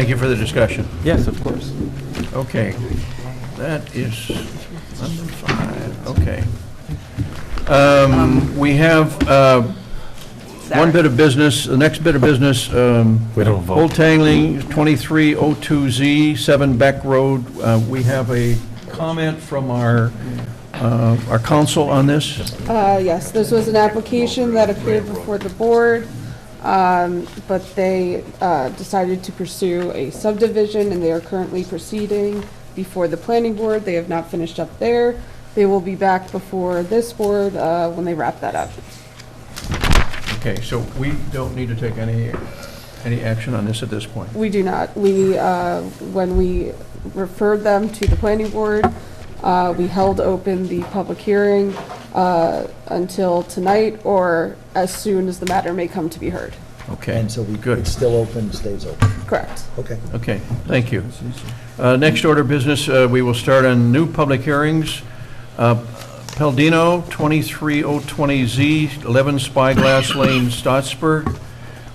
Thank you for the discussion. Yes, of course. Okay, that is number five, okay. Um, We have uh, one bit of business, the next bit of business. We don't vote. Old Tangling, 2302Z, 7 Beck Road. Uh, We have a comment from our, uh, our council on this. Uh, Yes, this was an application that appeared before the board, um, but they uh, decided to pursue a subdivision, and they are currently proceeding before the planning board. They have not finished up there. They will be back before this board uh, when they wrap that up. Okay, so we don't need to take any, any action on this at this point. We do not. We, uh, when we referred them to the planning board, uh, we held open the public hearing uh, until tonight or as soon as the matter may come to be heard. Okay, And so we, good. it's still open, stays open. Correct. Okay. Okay, thank you. Uh, Next order of business, uh, we will start on new public hearings. Uh, Peldino, 23020Z, 11 Spyglass Lane, Stottsburg.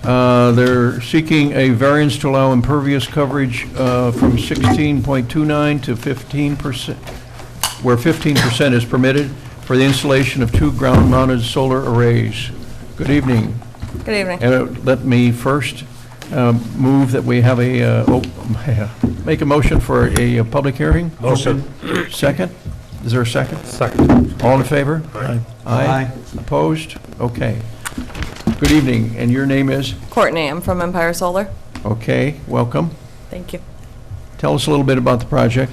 Uh, They're seeking a variance to allow impervious coverage uh, from 16.29 to 15%, where 15% is permitted for the installation of two ground-mounted solar arrays. Good evening. Good evening. And uh, let me first um, move that we have a, uh, oh, make a motion for a uh, public hearing? Motion. Second? Is there a second? Second. All in favor? Aye. Aye? Opposed? Okay. Good evening, and your name is? Courtney, I'm from Empire Solar. Okay, welcome. Thank you. Tell us a little bit about the project.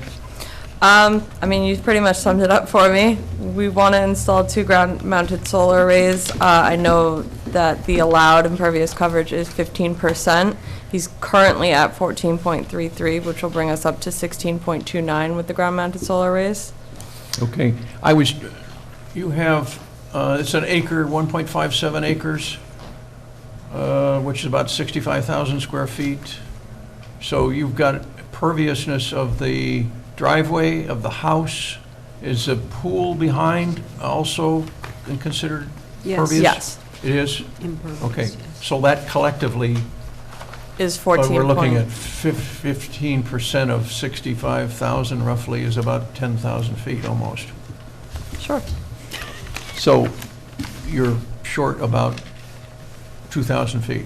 Um, I mean, you pretty much summed it up for me. We want to install two ground-mounted solar arrays. Uh, I know that the allowed impervious coverage is 15%. He's currently at 14.33, which will bring us up to 16.29 with the ground-mounted solar arrays. Okay, I was, you have, uh, it's an acre, 1.57 acres, uh, which is about 65,000 square feet. So you've got perviousness of the driveway, of the house. Is a pool behind also considered Yes. pervious? Yes, It is? Okay, so that collectively, is 14. but Oh, we're looking at point- fif- 15% of 65,000 roughly is about 10,000 feet almost. Sure. So you're short about 2,000 feet.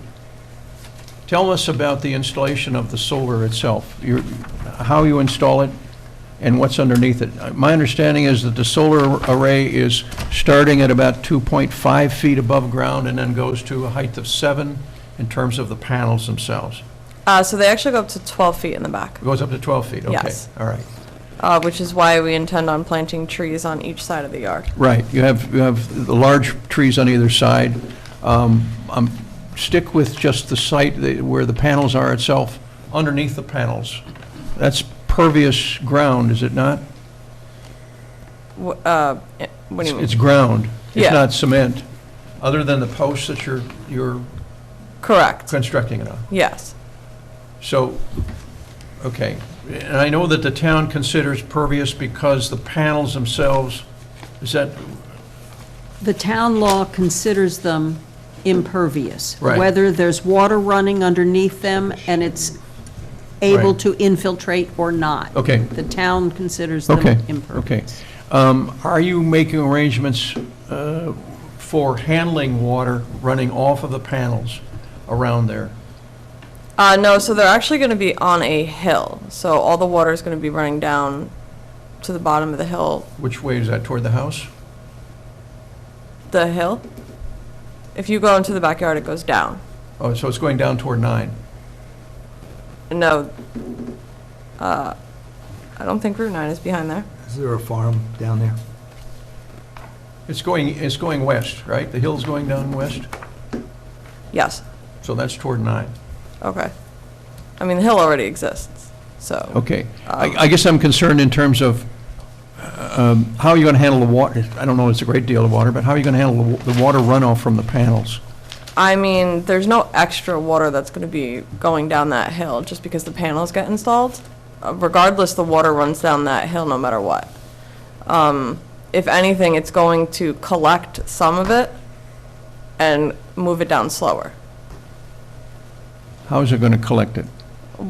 Tell us about the installation of the solar itself, Your- how you install it and what's underneath it. Uh, My understanding is that the solar array is starting at about 2.5 feet above ground and then goes to a height of seven in terms of the panels themselves. Uh, So they actually go up to 12 feet in the back, It goes up to 12 feet, okay. Yes. All right. uh, which is why we intend on planting trees on each side of the yard. Right, you have, you have the large trees on either side. Um, um, Stick with just the site that- where the panels are itself, underneath the panels. That's pervious ground, is it not? Wh- uh, eh, What do you mean? It's ground, it's Yeah. not cement, other than the posts that you're, you're Correct, constructing it on. yes. So, okay, and I know that the town considers pervious because the panels themselves, is that, The town law considers them impervious. Right. Whether there's water running underneath them and it's able Right. to infiltrate or not. Okay. The town considers them Okay, okay. impervious. Um, Are you making arrangements uh, for handling water running off of the panels around there? Uh, no, so they're actually going to be on a hill. So all the water is going to be running down to the bottom of the hill. Which way is that, toward the house? The hill? If you go into the backyard, it goes down. Oh, so it's going down toward nine? No, uh, I don't think Route 9 is behind there. Is there a farm down there? It's going, it's going west, right? The hill's going down west, Yes, so that's toward nine. okay. I mean, the hill already exists, so. Okay. I I guess I'm concerned in terms of um, how are you going to handle the water? I don't know, it's a great deal of water, but how are you going to handle the wa- the water runoff from the panels? I mean, there's no extra water that's going to be going down that hill just because the panels get installed. Uh, Regardless, the water runs down that hill no matter what. Um, If anything, it's going to collect some of it and move it down slower. How is it going to collect it?